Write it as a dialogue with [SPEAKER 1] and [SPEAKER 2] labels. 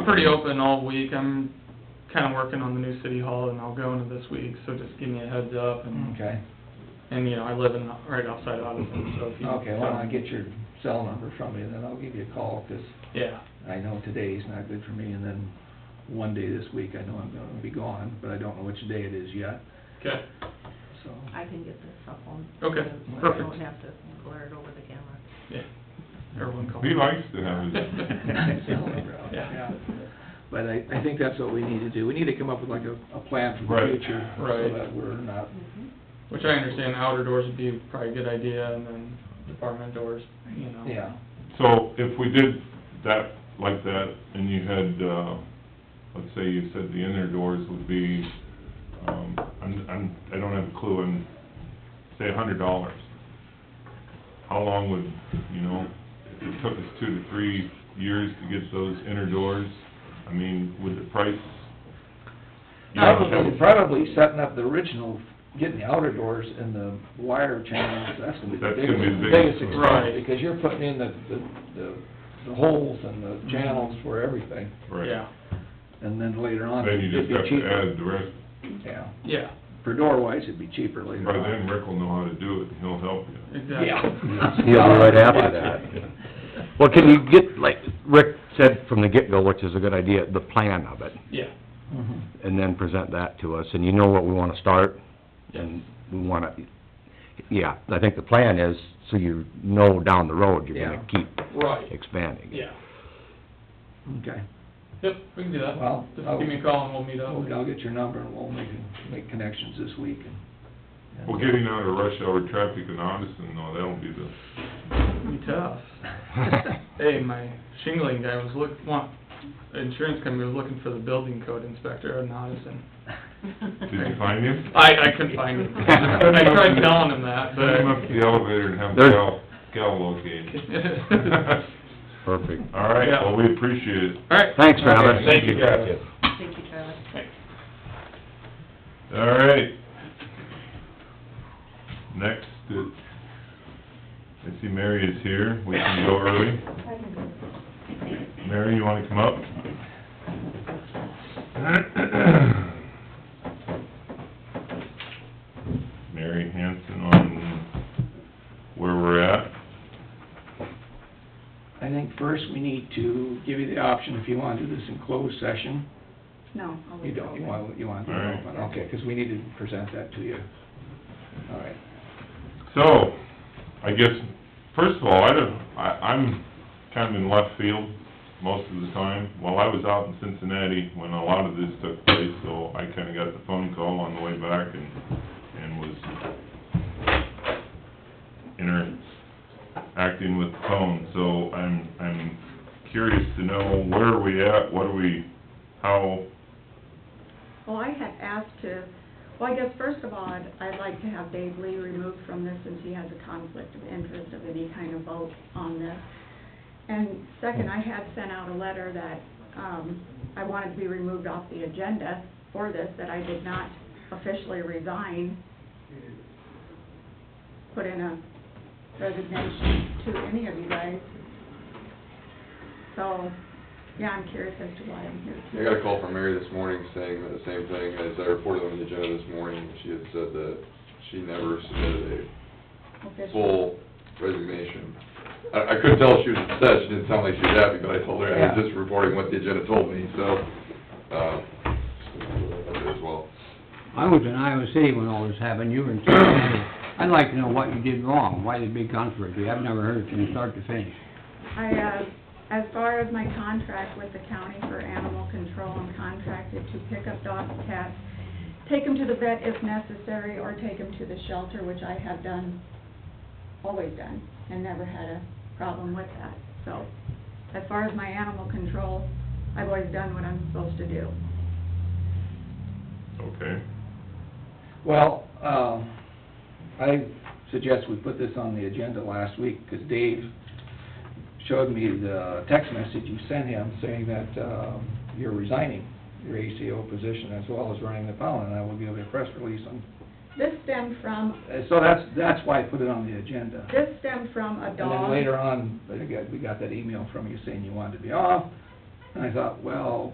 [SPEAKER 1] pretty open all week. I'm kinda working on the new city hall and I'll go into this week, so just give me a heads up and,
[SPEAKER 2] Okay,
[SPEAKER 1] and, you know, I live in, right outside Addison, so if you.
[SPEAKER 2] okay, well, I'll get your cell number from you, then I'll give you a call, 'cause
[SPEAKER 1] Yeah,
[SPEAKER 2] I know today's not good for me, and then one day this week, I know I'm gonna be gone, but I don't know which day it is yet,
[SPEAKER 1] okay,
[SPEAKER 2] so.
[SPEAKER 3] I can get this up on.
[SPEAKER 1] Okay,
[SPEAKER 3] I
[SPEAKER 1] perfect.
[SPEAKER 3] don't have to glare it over the camera.
[SPEAKER 1] yeah. Everyone call.
[SPEAKER 4] Be nice to have it.
[SPEAKER 2] Cell number out,
[SPEAKER 1] Yeah.
[SPEAKER 2] yeah. But I, I think that's what we need to do, we need to come up with like a, a plan for the
[SPEAKER 4] Right.
[SPEAKER 2] future, so
[SPEAKER 1] Right.
[SPEAKER 2] that we're not,
[SPEAKER 1] Which I understand outer doors would be probably a good idea and then department doors, you know.
[SPEAKER 2] yeah.
[SPEAKER 4] So if we did that, like that, and you had, uh, let's say you said the inner doors would be, um, I'm, I'm, I don't have a clue, and say a hundred dollars. How long would, you know, if it took us two to three years to get those inner doors, I mean, would the price? you know,
[SPEAKER 2] Probably, probably setting up the original, getting the outer doors and the wire channels, that's gonna be the
[SPEAKER 4] That's
[SPEAKER 2] biggest,
[SPEAKER 4] gonna be the
[SPEAKER 2] the
[SPEAKER 4] biggest
[SPEAKER 2] biggest
[SPEAKER 1] one.
[SPEAKER 2] expense,
[SPEAKER 1] Right.
[SPEAKER 2] because you're putting in the, the- the, the holes and the channels for everything,
[SPEAKER 4] Right.
[SPEAKER 1] Yeah,
[SPEAKER 2] and then later on,
[SPEAKER 4] Then you
[SPEAKER 2] it'd
[SPEAKER 4] just
[SPEAKER 2] be
[SPEAKER 4] have to
[SPEAKER 2] cheaper.
[SPEAKER 4] add the rest,
[SPEAKER 2] Yeah,
[SPEAKER 1] yeah,
[SPEAKER 2] for door wise, it'd be cheaper later
[SPEAKER 4] by then
[SPEAKER 2] on.
[SPEAKER 4] Rick will know how to do it, and he'll help you.
[SPEAKER 1] exactly.
[SPEAKER 2] Yeah.
[SPEAKER 5] He'll be right after that. Well, can you get, like Rick said from the get-go, which is a good idea, the plan of it,
[SPEAKER 1] Yeah,
[SPEAKER 2] Mhm.
[SPEAKER 5] and then present that to us, and you know what we wanna start, and we wanna, yeah, I think the plan is, so you know down the road, you're gonna keep
[SPEAKER 1] right,
[SPEAKER 5] expanding.
[SPEAKER 1] yeah.
[SPEAKER 2] Okay,
[SPEAKER 1] Yep, we can do that.
[SPEAKER 2] Well,
[SPEAKER 1] Just
[SPEAKER 2] I'll-
[SPEAKER 1] give me a call and we'll meet up.
[SPEAKER 2] I'll, I'll get your number and we'll make, make connections this week and.
[SPEAKER 4] Well, getting out of rush hour traffic in Addison, no, that'll be the
[SPEAKER 1] Be tough. Hey, my shingling guy was look, want, insurance company was looking for the building code inspector in Addison.
[SPEAKER 4] Did you find him?
[SPEAKER 1] I, I couldn't find him. I tried telling him that,
[SPEAKER 4] Send him up to the
[SPEAKER 1] but.
[SPEAKER 4] elevator and have
[SPEAKER 5] There's-
[SPEAKER 4] Cal, Cal locate him.
[SPEAKER 5] Perfect.
[SPEAKER 4] All right, well, we appreciate it.
[SPEAKER 1] All right.
[SPEAKER 5] Thanks, Travis.
[SPEAKER 4] Okay, thank you, Travis.
[SPEAKER 3] Thank you, Travis.
[SPEAKER 4] All right. Next, it- I see Mary is here. We can go early. Mary, you wanna come up? Mary Hanson on where we're at.
[SPEAKER 2] I think first we need to give you the option if you want to do this in closed session.
[SPEAKER 3] No, I'll
[SPEAKER 2] You
[SPEAKER 3] leave it
[SPEAKER 2] don't, you
[SPEAKER 3] open.
[SPEAKER 2] want, you want to
[SPEAKER 4] All right.
[SPEAKER 2] open, okay, because we need to present that to you. All right.
[SPEAKER 4] So, I guess, first of all, I don't, I, I'm kind of in left field most of the time. Well, I was out in Cincinnati when a lot of this took place, so I kinda got the phone call on the way back and, and was interacting with the phone, so I'm, I'm curious to know where are we at, what are we, how,
[SPEAKER 6] Well, I had asked to, well, I guess first of all, I'd, I'd like to have Dave Lee removed from this since he has a conflict of interest of any kind of vote on this. And second, I had sent out a letter that, um, I wanted to be removed off the agenda for this, that I did not officially resign. Put in a resignation to any of you guys. So, yeah, I'm curious as to why I'm here.
[SPEAKER 7] I got a call from Mary this morning saying the same thing as I reported on the agenda this morning. She had said that she never submitted a
[SPEAKER 6] Official.
[SPEAKER 7] full resignation. I, I couldn't tell if she was upset, she didn't sound like she was happy, but I told her I
[SPEAKER 2] Yeah.
[SPEAKER 7] was just reporting what the agenda told me, so, um, as well.
[SPEAKER 8] I was in Iowa City when all this happened, you were in Cincinnati. I'd like to know what you did wrong, why the big controversy, I've never heard it from start to finish.
[SPEAKER 6] I, uh, as far as my contract with the county for animal control, I'm contracted to pick up dogs, cats, take them to the vet if necessary, or take them to the shelter, which I have done, always done, and never had a problem with that. So, as far as my animal control, I've always done what I'm supposed to do.
[SPEAKER 4] okay?
[SPEAKER 2] Well, um, I suggest we put this on the agenda last week, because Dave showed me the text message you sent him saying that, um, you're resigning your ACO position as well as running the pound, and I will give a press release on,
[SPEAKER 6] This stemmed from,
[SPEAKER 2] Uh, so that's, that's why I put it on the agenda.
[SPEAKER 6] this stemmed from a
[SPEAKER 2] And
[SPEAKER 6] dog.
[SPEAKER 2] then later on, I think I- we got that email from you saying you wanted to be off, And I thought, well,